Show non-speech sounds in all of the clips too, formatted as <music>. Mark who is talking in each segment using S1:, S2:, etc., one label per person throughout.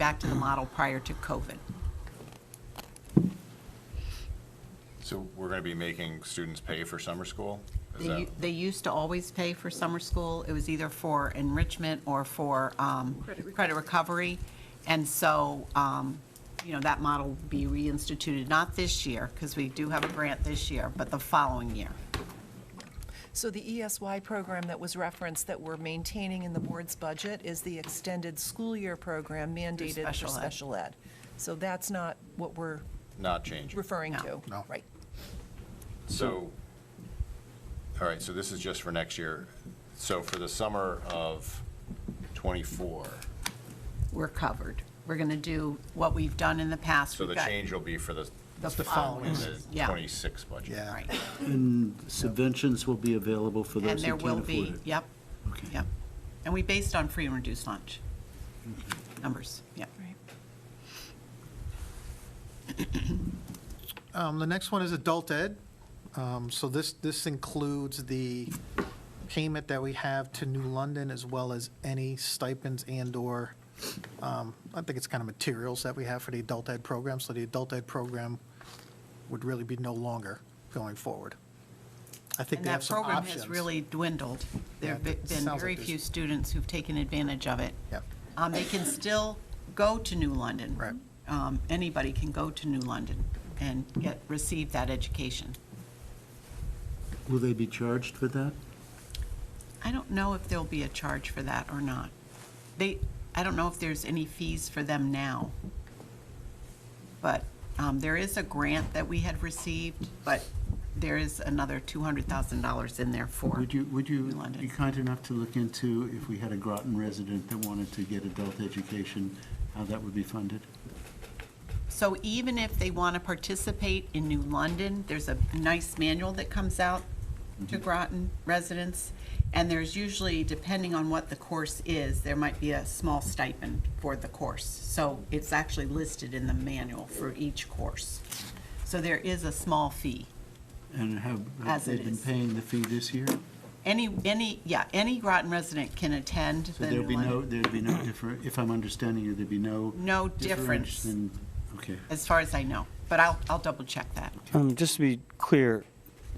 S1: back to the model prior to COVID.
S2: So we're going to be making students pay for summer school? Is
S1: They
S2: that,
S1: u- They used to always pay for summer school. It was either for enrichment or for um, credit recovery. And so, um, you know, that model will be reinstituted, not this year, because we do have a grant this year, but the following year.
S3: So the ESY program that was referenced that we're maintaining in the board's budget is the extended school year program mandated for
S1: special ed.
S3: special ed. So that's not what we're
S2: not changing?
S3: referring
S1: No.
S3: to.
S4: No.
S3: Right.
S2: So, all right, so this is just for next year. So for the summer of '24,
S1: We're covered. We're going to do what we've done in the past.
S2: so the
S1: We've got
S2: change will be for the
S1: The
S2: following,
S1: following,
S2: the
S1: yeah.
S2: '26 budget?
S4: Yeah.
S1: Right.
S5: Subventions will be available for
S1: And
S5: those
S1: there
S5: who
S1: will
S5: can't
S1: be,
S5: afford it.
S1: yep, yep. And we based on free and reduced lunch numbers, yep.
S4: Um, The next one is adult ed. Um, So this, this includes the payment that we have to New London as well as any stipends and/or, um, I think it's kind of materials that we have for the adult ed program. So the adult ed program would really be no longer going forward. I think
S1: And
S4: they have
S1: that
S4: some
S1: program
S4: options.
S1: has really dwindled. There
S4: Yeah,
S1: have
S4: it sounds
S1: been
S4: like
S1: very
S4: there's-
S1: few students who've taken advantage of it.
S4: Yep.
S1: Um, They can still go to New London.
S4: Right.
S1: Um, Anybody can go to New London and get, receive that education.
S5: Will they be charged for that?
S1: I don't know if there'll be a charge for that or not. They, I don't know if there's any fees for them now. But um, there is a grant that we had received, but there is another $200,000 in there for.
S5: Would you, would
S1: New
S5: you
S1: London.
S5: be kind enough to look into if we had a Groton resident that wanted to get adult education, how that would be funded?
S1: So even if they want to participate in New London, there's a nice manual that comes out to
S5: Mm-hmm.
S1: Groton residents, and there's usually, depending on what the course is, there might be a small stipend for the course. So it's actually listed in the manual for each course. So there is a small fee.
S5: And have,
S1: As
S5: have they
S1: it
S5: been
S1: is.
S5: paying the fee this year?
S1: Any, any, yeah, any Groton resident can attend
S5: So
S1: the
S5: there'd
S1: New
S5: be no,
S1: London,
S5: there'd be no differ, if I'm understanding you, there'd be no.
S1: No difference.
S5: than- Okay.
S1: as far as I know. But I'll, I'll double check that.
S6: Um, just to be clear,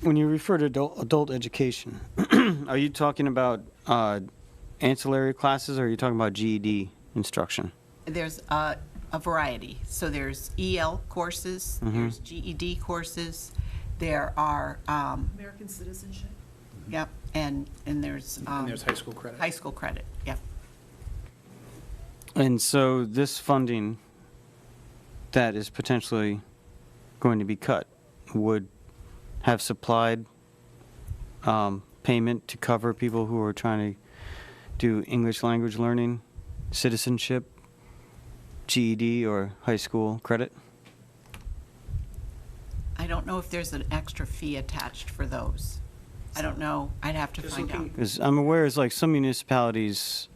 S6: when you refer to adult, adult education, <clears throat> are you talking about uh, ancillary classes or are you talking about GED instruction?
S1: there's a, a variety. So there's EL courses,
S4: Mm-hmm.
S1: there's GED courses, there are, um,
S3: American citizenship.
S1: yep, and, and there's. um,
S4: there's high school credit.
S1: High school credit, yep.
S6: And so this funding that is potentially going to be cut would have supplied um, payment to cover people who are trying to do English language learning, citizenship, GED, or high school credit?
S1: I don't know if there's an extra fee attached for those. I don't know, I'd have to find out.
S6: Because I'm aware, it's like some municipalities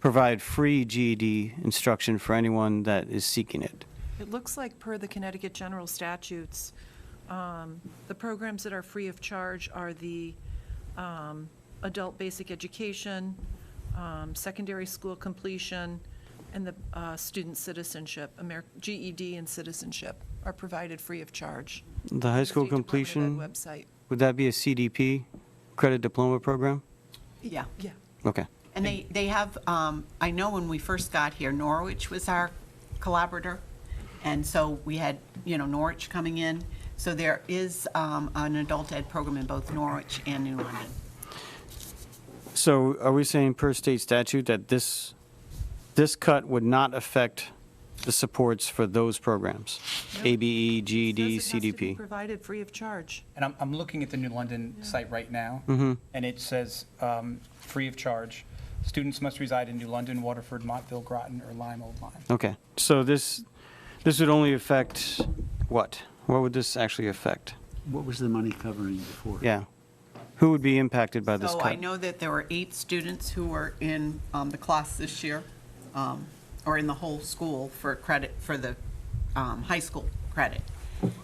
S6: provide free GED instruction for anyone that is seeking it.
S3: It looks like per the Connecticut general statutes, um, the programs that are free of charge are the um, adult basic education, um, secondary school completion, and the uh, student citizenship, Amer- GED and citizenship are provided free of charge.
S6: The high school
S3: State Department of Ed
S6: completion,
S3: Website,
S6: would that be a CDP, credit diploma program?
S1: Yeah.
S3: yeah.
S6: Okay.
S1: And they, they have, um, I know when we first got here, Norwich was our collaborator. And so we had, you know, Norwich coming in. So there is, um, an adult ed program in both Norwich and New London.
S6: So are we saying per state statute that this, this cut would not affect the supports for those programs? E, ABE, GED,
S3: It says it has to be
S6: CDP?
S3: Provided free of charge.
S7: And I'm, I'm looking at the New London site right now. And it says, um, free of charge. Students must reside in New London, Waterford, Montville, Groton, or Lyme, Old Lyme.
S6: Okay, so this, this would only affect what? What would this actually affect?
S5: What was the money covering before?
S6: Yeah. Who would be impacted by this
S1: So
S6: cut?
S1: I know that there were eight students who were in um, the class this year, um, or in the whole school for credit, for the um, high school credit.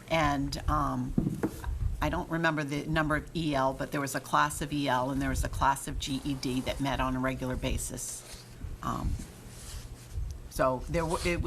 S1: And um, I don't remember the number of EL, but there was a class of EL and there E was a class of GED that met on a regular basis. Um, So there, wa- it